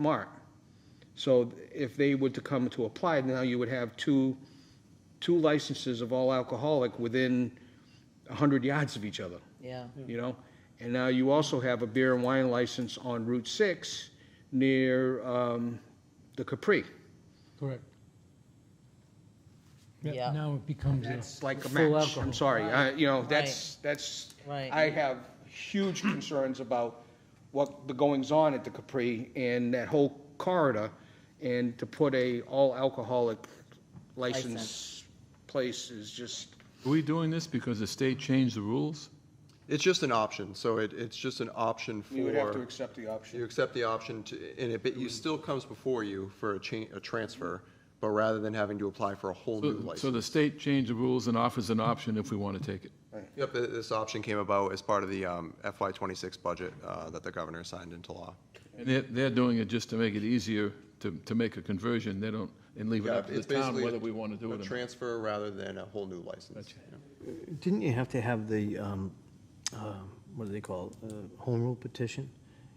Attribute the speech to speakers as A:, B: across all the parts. A: mart. So if they were to come to apply, now you would have two, two licenses of all alcoholic within a hundred yards of each other,
B: yeah.
A: you know? And now you also have a beer and wine license on Route Six near, um, the Capri.
C: Correct.
B: Yeah.
C: Now it becomes a
A: It's like a
C: full
A: match,
C: alcohol.
A: I'm sorry, I, you know,
B: Right.
A: that's, that's,
B: Right.
A: I have huge concerns about what the goings-on at the Capri and that whole corridor, and to put a all-alcoholic license
B: License.
A: place is just,
D: Are we doing this because the state changed the rules?
E: It's just an option, so it, it's just an option for.
A: we would have to accept the
E: You
A: option.
E: accept the option to, and it, but you still comes before you for a cha, a transfer, but rather than having to apply for a whole new
D: So- So
E: license.
D: the state changed the rules and offers an option if we want to take it.
E: Yep, th- this option came about as part of the um, FY twenty-six budget, uh, that the governor signed into law.
D: And they're, they're doing it just to make it easier to, to make a conversion, they don't, and leave it up to
E: It's
D: the town
E: basically
D: whether we want to do
E: a
D: it or not.
E: transfer rather than a whole new license. Yeah.
F: Didn't you have to have the, um, uh, what do they call it, uh, home rule petition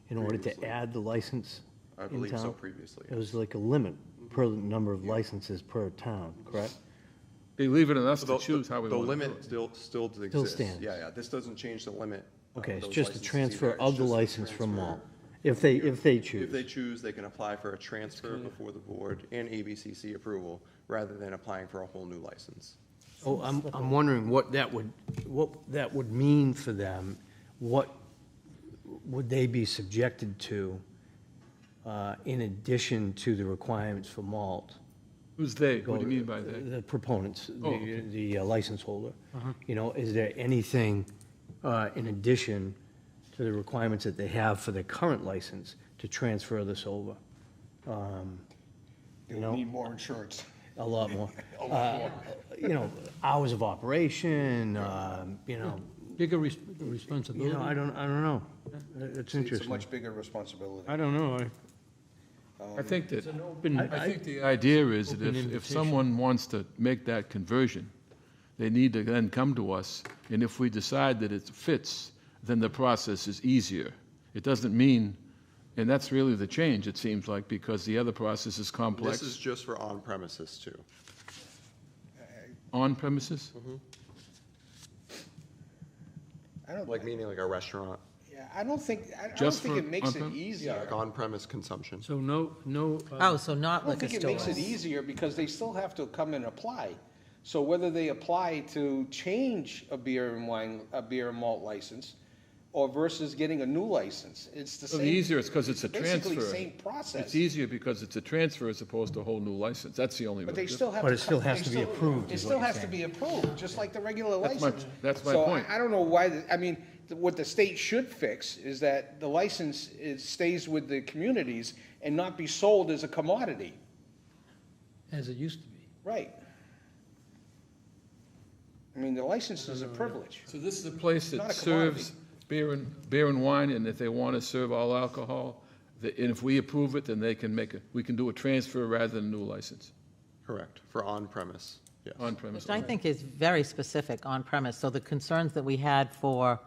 F: in order to add the license
E: I
F: in
E: believe so
F: town?
E: previously,
F: It was like a limit per the number of licenses per town, correct?
D: They leave it on us to
E: The-
D: choose how we
E: The
D: want to do
E: limit
D: it.
E: still, still exists.
F: stands.
E: Yeah, yeah, this doesn't change the limit. uh,
F: Okay, it's
E: those
F: just a
E: licenses
F: transfer
E: either. It's
F: of the
E: just a
F: license from mall,
E: transfer.
F: if they, if they
E: If they
F: choose.
E: choose, they can apply for a transfer before the board and ABCC approval, rather than applying for a whole new license.
F: Oh, I'm, I'm wondering what that would, what that would mean for them. What would they be subjected to uh, in addition to the requirements for malt?
D: Who's they? What do you mean by they?
F: The proponents,
D: Oh,
F: the,
D: okay.
F: the uh, license holder. You know, is there anything uh, in addition to the requirements that they have for their current license to transfer this over? Um,
A: They would need more insurance.
F: A lot more. Uh, You know, hours of operation, um, you know,
C: bigger res-
F: you
C: responsibility.
F: know, I don't, I don't know. It's
A: It's a
F: interesting.
A: much bigger responsibility.
C: I don't know. I-
E: uh,
D: I think that,
C: open-
D: I think the idea is that
C: Open
D: if, if
C: invitation.
D: someone wants to make that conversion, they need to then come to us, and if we decide that it fits, then the process is easier. It doesn't mean, and that's really the change, it seems like, because the other process is
E: This is
D: complex.
E: just for on-premises too.
D: On premises?
A: Mm-hmm. I don't,
E: Like meaning like a restaurant,
A: yeah, I don't think, I- I don't
D: Just
A: think
D: for
A: it makes it
D: on-prem?
A: easier.
E: like on-premise consumption.
C: So no, no. uh,
B: Oh, so
A: I
B: not
A: don't
B: liquor
A: think it makes it
B: stores.
A: easier because they still have to come and apply. So whether they apply to change a beer and wine, a beer and malt license, or versus getting a new license, it's the
D: So
A: same.
D: the easier is because it's a
A: Basically,
D: transfer.
A: same process,
D: It's easier because it's a transfer as opposed to a whole new license. That's the only.
A: but
D: real
A: they still have.
F: But it
A: co-
F: still has
A: they
F: to be
A: still-
F: approved,
A: It
F: is what
A: still has
F: you're
A: to be approved, just like the regular
D: That's my-
A: license.
D: that's my
A: So I-
D: point.
A: I don't know why, the- I mean, th- what the state should fix is that the license is, stays with the communities and not be sold as a commodity,
C: As it used to be.
A: right? I mean, the license is a privilege.
D: So this is a place
A: Not
D: that
A: a commodity.
D: serves beer and, beer and wine, and if they want to serve all alcohol, the- and if we approve it, then they can make a, we can do a transfer rather than a new license
E: Correct, for on-premise, yes.
D: on premise.
B: Which I think is very specific on premise. So the concerns that we had for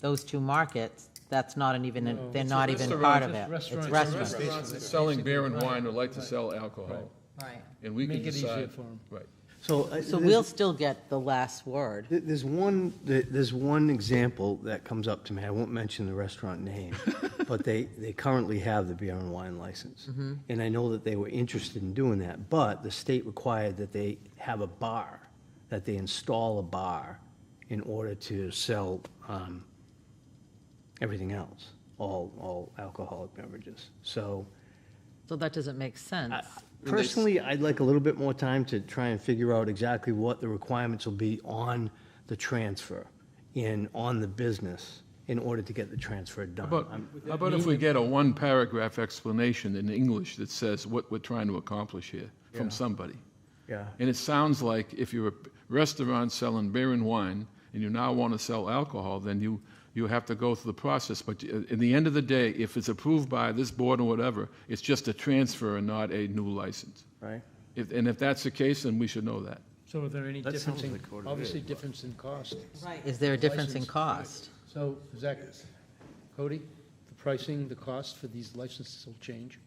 B: those two markets, that's not an even, they're not even part of it. It's restaurants.
D: Restaurants that's selling beer and wine would like to sell alcohol,
B: Right.
D: and we can
C: Make it easier
D: decide.
C: for 'em.
D: Right.
F: So. uh,
B: So
F: this-
B: we'll still get the last word.
F: There- There's one, there- there's one example that comes up to me, I won't mention the restaurant name, but they, they currently have the beer and wine license. And I know that they were interested in doing that, but the state required that they have a bar, that they install a bar in order to sell um, everything else, all, all alcoholic beverages. So
B: So that doesn't make sense.
F: personally, I'd like a little bit more time to try and figure out exactly what the requirements will be on the transfer and on the business in order to get the transfer done.
D: But
F: I'm-
D: how about if we get a one-paragraph explanation in English that says what we're trying to accomplish here from somebody?
F: Yeah.
D: And it sounds like if you're a restaurant selling beer and wine, and you now want to sell alcohol, then you, you have to go through the process. But you- in the end of the day, if it's approved by this board or whatever, it's just a transfer and not a new license.
F: Right.
D: If, and if that's the case, then we should know that.
C: So are there any
F: That
C: difference
F: sounds
C: in,
F: like what it
C: obviously
F: is.
C: difference in cost?
B: Right. Is there a difference in
C: License.
B: cost?
C: So Zach, Cody, the pricing, the cost for these licenses will change?